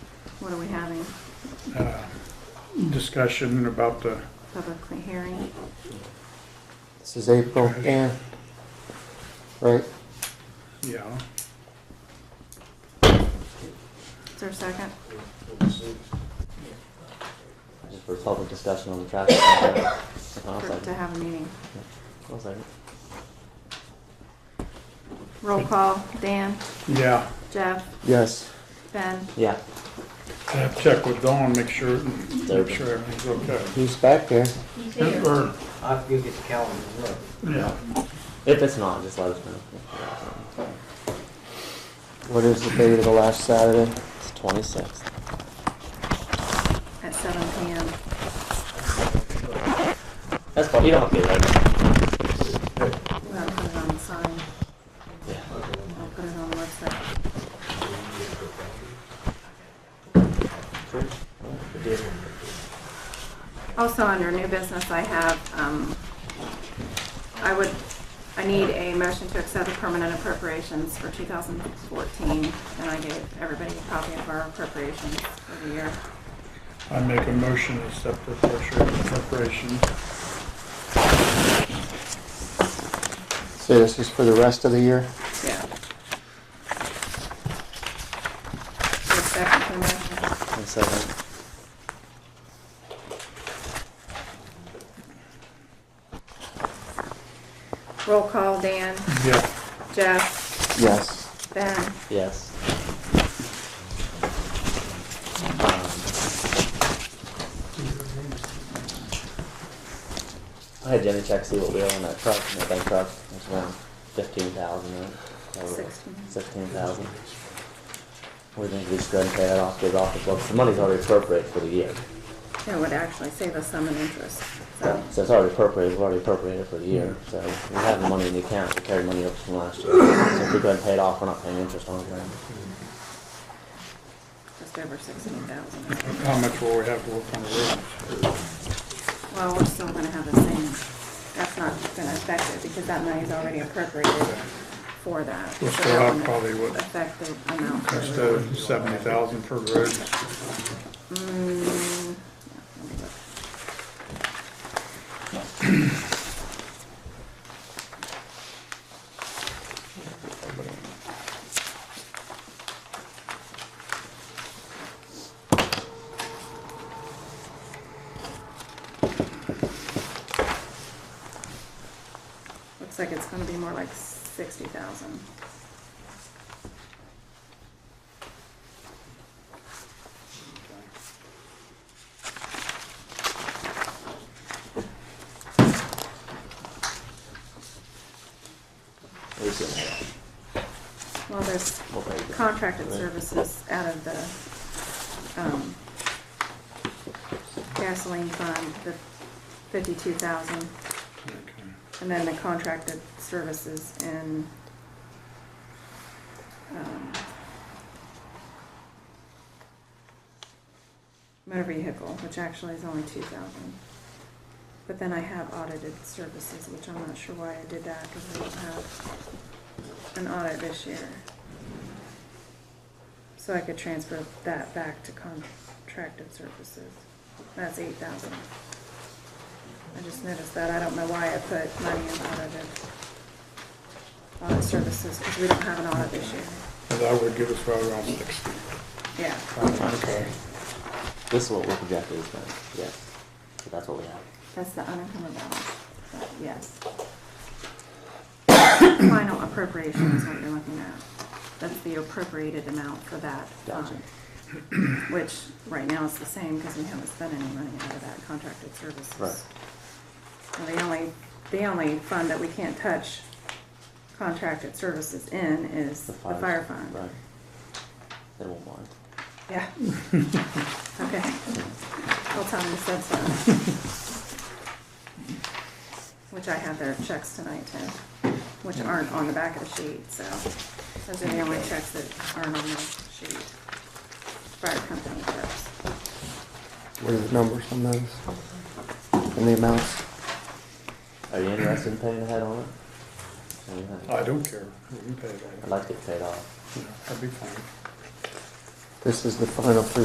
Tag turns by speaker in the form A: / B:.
A: What are we having?
B: uh, discussion about the,
A: Public hearing?
C: This is April, and, right,
B: yeah,
A: Is there a second?
C: for public discussion on the traffic. I'll
A: For- To
C: second.
A: have a meeting?
C: I'll second.
A: Roll call, Dan,
B: yeah.
A: Jeff,
C: Yes.
A: Ben,
C: Yeah,
B: I have to check with Dawn, make sure, make sure everything's okay.
C: he's back there.
D: He's here.
B: Or,
E: I have to go get the calendar and look.
B: yeah,
C: If it's not, just let us know. What is the date of the last Saturday? It's twenty-sixth.
A: at seven PM.
C: That's fine, you don't have to be late.
A: We're gonna put it on the sign.
C: Yeah.
A: I'll put it on the website. Also, under new business, I have, um, I would, I need a motion to accept the permanent appropriations for 2014, and I gave everybody a copy of our appropriations for the year.
B: I make a motion to accept the pressure and preparation.
C: So this is for the rest of the year?
A: Yeah. Your second for the motion.
C: One second.
A: Roll call, Dan,
B: Yeah,
A: Jeff,
C: Yes.
A: Ben.
C: Yes. I had Jenny check see what we owe on that truck, that bank truck, it's around fifteen thousand, right?
A: Sixteen.
C: Sixteen thousand. We think we should go ahead and pay that off, get it off the books, the money's already appropriated for the year.
A: It would actually save us some in interest, so.
C: So it's already appropriated, we've already appropriated for the year, so we have the money in the account, we carry money up from last year. So if we go ahead and pay it off, we're not paying interest on it, right?
A: just over sixteen thousand.
B: how much will we have to work on the road?
A: Well, we're still gonna have the same, that's not gonna affect it because that money's already appropriated for that.
B: We'll
A: So
B: still
A: that
B: have
A: wouldn't
B: probably what-
A: Affect the amount. for-
B: Instead of seventy thousand for roads,
A: Mm, yeah, let me look. Looks like it's gonna be more like sixty thousand.
C: We should-
A: Well, there's
C: We'll pay it.
A: contracted services out of the um, gasoline fund, the fifty-two thousand,
B: okay,
A: and then the contracted services in um, motor vehicle, which actually is only two thousand. But then I have audited services, which I'm not sure why I did that, because we don't have an audit this year. So I could transfer that back to contracted services. That's eight thousand. I just noticed that. I don't know why I put money in audited audit services, because we don't have an audit this year.
B: But that would give us right around sixty.
A: Yeah.
B: Okay.
C: This is what we're projected to spend, yes. So That's what we have.
A: That's the unencumbered balance, but yes. Final appropriation is what you're looking at. That's the appropriated amount for that
C: Gotcha.
A: fund. Which, right now, is the same because we haven't spent any money out of that contracted services. And
C: Right.
A: the only, the only fund that we can't touch contracted services in is the fire fund.
C: Right. They won't mind.
A: Yeah. Okay. I'll tell them you said so. Which I have their checks tonight too, which aren't on the back of the sheet, so those are the only checks that aren't on the sheet. Fire company checks.
C: What are the numbers on those? And the amounts? Are you interested in paying ahead on it? Or you not?
B: I don't care, we can pay it
C: I'd
B: all,
C: like to get paid off.
B: that'd be fine.
C: This is the final three